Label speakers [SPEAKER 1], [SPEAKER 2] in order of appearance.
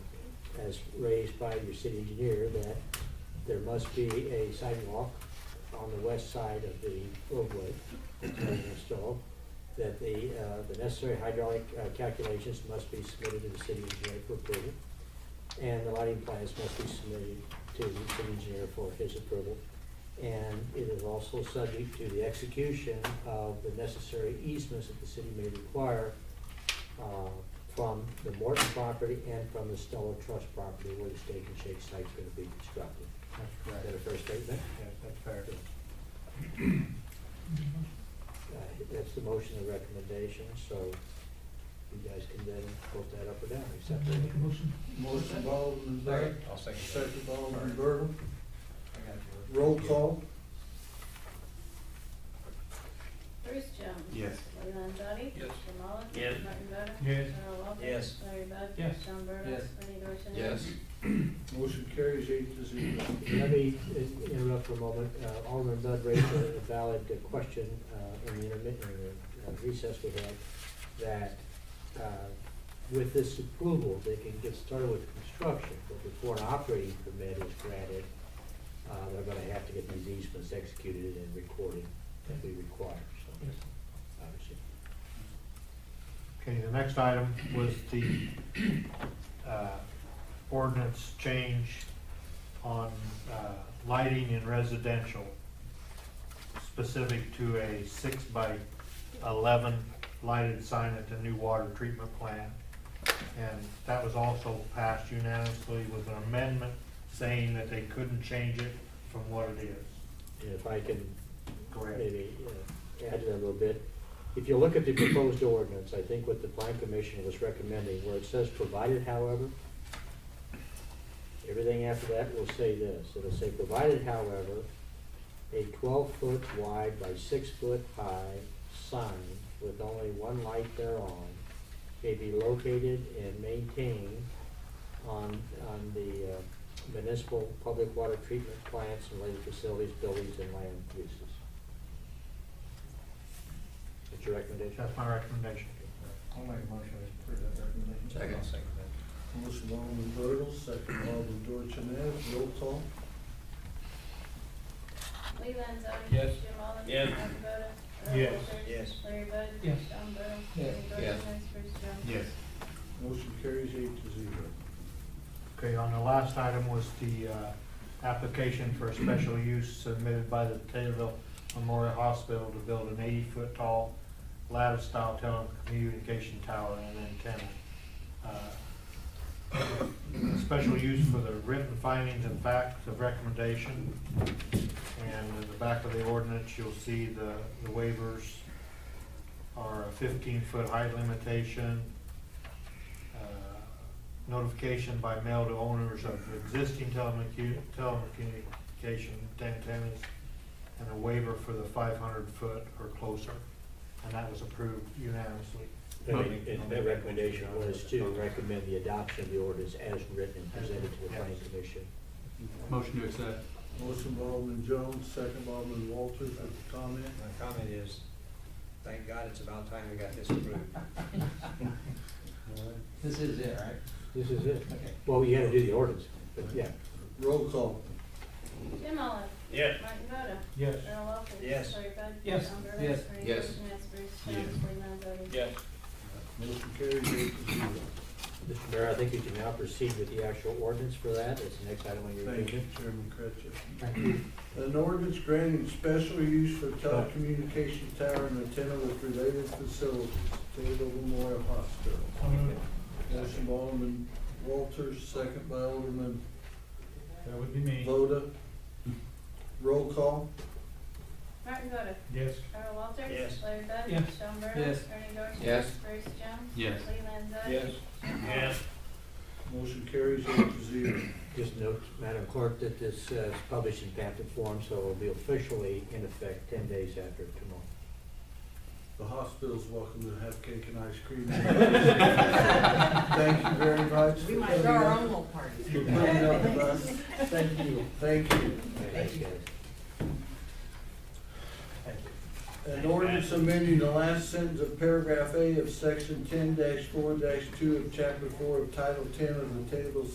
[SPEAKER 1] as raised by your city engineer, that there must be a sidewalk on the west side of the roadway that's being installed, that the, uh, the necessary hydraulic uh, calculations must be submitted to the city engineer for approval, and the lighting plans must be submitted to the city engineer for his approval. And it is also subject to the execution of the necessary easements that the city may require uh, from the Morton property and from the Stella Trust property where the steak and shake site's gonna be constructed.
[SPEAKER 2] That's
[SPEAKER 1] Is
[SPEAKER 2] correct.
[SPEAKER 1] that a fair statement?
[SPEAKER 2] Yeah, that's fair.
[SPEAKER 1] Uh, That's the motion and recommendation, so you guys can then vote that up or down, accept it.
[SPEAKER 3] Make a motion.
[SPEAKER 2] Motion by Alderman Beck,
[SPEAKER 4] I'll second that.
[SPEAKER 2] second by Alderman Bertle,
[SPEAKER 4] I got yours.
[SPEAKER 2] roll call.
[SPEAKER 5] Bruce Jones.
[SPEAKER 6] Yes.
[SPEAKER 5] Lee Landzadi.
[SPEAKER 4] Yes.
[SPEAKER 5] Jim Oliver.
[SPEAKER 6] Yes.
[SPEAKER 5] Martin Boda.
[SPEAKER 3] Yes.
[SPEAKER 5] Earl Walters.
[SPEAKER 4] Yes.
[SPEAKER 5] Larry Bud.
[SPEAKER 3] Yes.
[SPEAKER 5] Sean Burdell.
[SPEAKER 4] Yes.
[SPEAKER 5] Bernie Dorchenez.
[SPEAKER 4] Yes.
[SPEAKER 2] Motion carries eight to zero.
[SPEAKER 1] Let me uh, interrupt for a moment. Uh, Alderman Bud raised a a valid uh, question uh, in the intermittent in the, uh, recess we had, that uh, with this approval, they can get started with construction, but before an operating permit is granted, uh, they're gonna have to get these easements executed and recorded that we require, so,
[SPEAKER 3] Yes.
[SPEAKER 1] obviously.
[SPEAKER 7] Okay, the next item was the uh, ordinance change on uh, lighting in residential, specific to a six by eleven lighted sign at the new water treatment plant. And that was also passed unanimously with an amendment saying that they couldn't change it from what it is.
[SPEAKER 1] And if I can
[SPEAKER 7] Correct?
[SPEAKER 1] maybe uh, add to that a little bit. If you look at the proposed ordinance, I think what the plan commission was recommending, where it says provided however, everything after that will say this, it'll say provided however, a twelve-foot wide by six-foot high sign with only one light thereon may be located and maintained on, on the uh, municipal public water treatment plants and related facilities, buildings, and land uses. What's your recommendation?
[SPEAKER 7] That's my recommendation.
[SPEAKER 2] I'll make a motion to approve that recommendation.
[SPEAKER 4] I'll second that.
[SPEAKER 2] Motion by Alderman Bertle, second by Alderman Dorchenez, roll call.
[SPEAKER 5] Lee Landzadi. Jim
[SPEAKER 4] Yes.
[SPEAKER 5] Oliver.
[SPEAKER 6] Yes.
[SPEAKER 5] Martin Boda. Earl
[SPEAKER 7] Yes.
[SPEAKER 5] Walters.
[SPEAKER 4] Yes.
[SPEAKER 5] Larry Bud.
[SPEAKER 3] Yes.
[SPEAKER 5] Sean Burdell.
[SPEAKER 2] Yes.
[SPEAKER 5] Bernie
[SPEAKER 4] Yes.
[SPEAKER 5] Dorchenez. Bruce Jones.
[SPEAKER 6] Yes.
[SPEAKER 2] Motion carries eight to zero.
[SPEAKER 7] Okay, on the last item was the uh, application for a special use submitted by the Taylorville Memorial Hospital to build an eighty-foot tall lattice-style telecommunication tower and antenna. Uh, Special use for the written findings and facts of recommendation. And in the back of the ordinance, you'll see the the waivers are a fifteen-foot height limitation, uh, notification by mail to owners of existing telecommu- telecommunication antennas, and a waiver for the five hundred foot or closer, and that was approved unanimously.
[SPEAKER 1] And and the recommendation was to recommend the adoption of the ordinance as written and presented to the planning commission.
[SPEAKER 6] Motion to accept.
[SPEAKER 2] Motion by Alderman Jones, second by Alderman Walters, with a comment.
[SPEAKER 4] My comment is, thank God it's about time we got this approved.
[SPEAKER 2] All right.
[SPEAKER 8] This is it, right?
[SPEAKER 1] This is it. Well, you had to do the ordinance, but yeah.
[SPEAKER 2] Roll call.
[SPEAKER 5] Jim Oliver.
[SPEAKER 6] Yes.
[SPEAKER 5] Martin Boda.
[SPEAKER 3] Yes.
[SPEAKER 5] Earl Walters.
[SPEAKER 4] Yes.
[SPEAKER 5] Larry Bud.
[SPEAKER 3] Yes.
[SPEAKER 5] Sean Burdell.
[SPEAKER 8] Yes.
[SPEAKER 5] Bernie
[SPEAKER 4] Yes.
[SPEAKER 5] Dorchenez. Bruce
[SPEAKER 6] Yes.
[SPEAKER 5] Jones. Lee Landzadi.
[SPEAKER 6] Yes.
[SPEAKER 2] Motion carries eight to zero.
[SPEAKER 1] Mr. Mayor, I think you can now proceed with the actual ordinance for that. That's the next item on your
[SPEAKER 2] Thank you,
[SPEAKER 1] agenda.
[SPEAKER 2] Chairman Cratchit.
[SPEAKER 7] Thank you.
[SPEAKER 2] An ordinance granting special use for telecommunication tower and antenna with related facilities, Taylor Memorial Hospital.
[SPEAKER 3] Um,
[SPEAKER 2] Motion by Alderman Walters, second by Alderman
[SPEAKER 3] That would be me.
[SPEAKER 2] Voda. Roll call.
[SPEAKER 5] Martin Boda.
[SPEAKER 3] Yes.
[SPEAKER 5] Earl Walters.
[SPEAKER 4] Yes.
[SPEAKER 5] Larry Bud.
[SPEAKER 3] Yes.
[SPEAKER 5] Sean Burdell.
[SPEAKER 8] Yes.
[SPEAKER 5] Bernie Dorchenez.
[SPEAKER 4] Yes.
[SPEAKER 5] Bruce Jones.
[SPEAKER 6] Yes.
[SPEAKER 5] Lee Landzadi.
[SPEAKER 4] Yes.
[SPEAKER 6] Yes.
[SPEAKER 2] Motion carries eight to zero.
[SPEAKER 1] Just note, Madam Clerk, that this uh, is published in pamphlet form, so it will be officially in effect ten days after tomorrow.
[SPEAKER 2] The hospital's welcome to have cake and ice cream. Thank you very much.
[SPEAKER 9] We might
[SPEAKER 2] for
[SPEAKER 9] throw
[SPEAKER 2] coming
[SPEAKER 9] our
[SPEAKER 2] up-
[SPEAKER 9] own little party.
[SPEAKER 2] For coming up with us.
[SPEAKER 1] Thank you.
[SPEAKER 2] Thank you.
[SPEAKER 1] Thanks, guys.
[SPEAKER 2] An ordinance amending the last sentence of paragraph A of section ten four two of chapter four of title ten of the Taylorville